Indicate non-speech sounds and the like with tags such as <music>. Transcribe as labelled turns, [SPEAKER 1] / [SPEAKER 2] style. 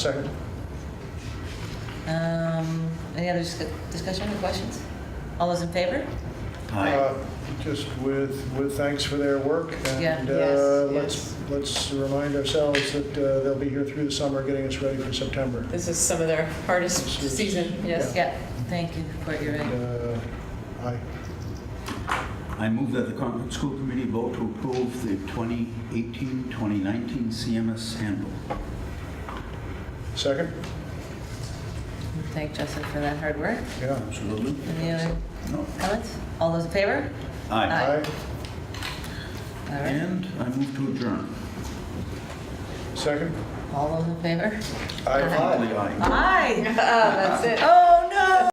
[SPEAKER 1] Second.
[SPEAKER 2] Um, Any other discu- discussion or questions? All those in favor?
[SPEAKER 1] Uh, Just with, with thanks for their work.
[SPEAKER 2] Yeah.
[SPEAKER 1] And
[SPEAKER 3] Yes,
[SPEAKER 1] uh, let's,
[SPEAKER 3] yes.
[SPEAKER 1] let's remind ourselves that uh, they'll be here through the summer getting us ready for September.
[SPEAKER 3] This is some of their hardest season, yes.
[SPEAKER 2] Yeah, thank you for your
[SPEAKER 1] And,
[SPEAKER 2] input.
[SPEAKER 1] uh, Aye.
[SPEAKER 4] I move that the Concord School Committee vote to approve the 2018-2019 CMS handbook.
[SPEAKER 1] Second?
[SPEAKER 2] Thank Justin for that hard work.
[SPEAKER 1] Yeah.
[SPEAKER 4] Absolutely.
[SPEAKER 2] Any other
[SPEAKER 4] No.
[SPEAKER 2] comments? All those in favor?
[SPEAKER 4] Aye.
[SPEAKER 2] Aye.
[SPEAKER 1] Aye.
[SPEAKER 2] All right,
[SPEAKER 4] And I move to adjourn.
[SPEAKER 1] Second?
[SPEAKER 2] all those in favor?
[SPEAKER 1] Aye.
[SPEAKER 3] <laughs>
[SPEAKER 4] Hopefully, aye.
[SPEAKER 2] Aye!
[SPEAKER 3] That's it.
[SPEAKER 2] Oh!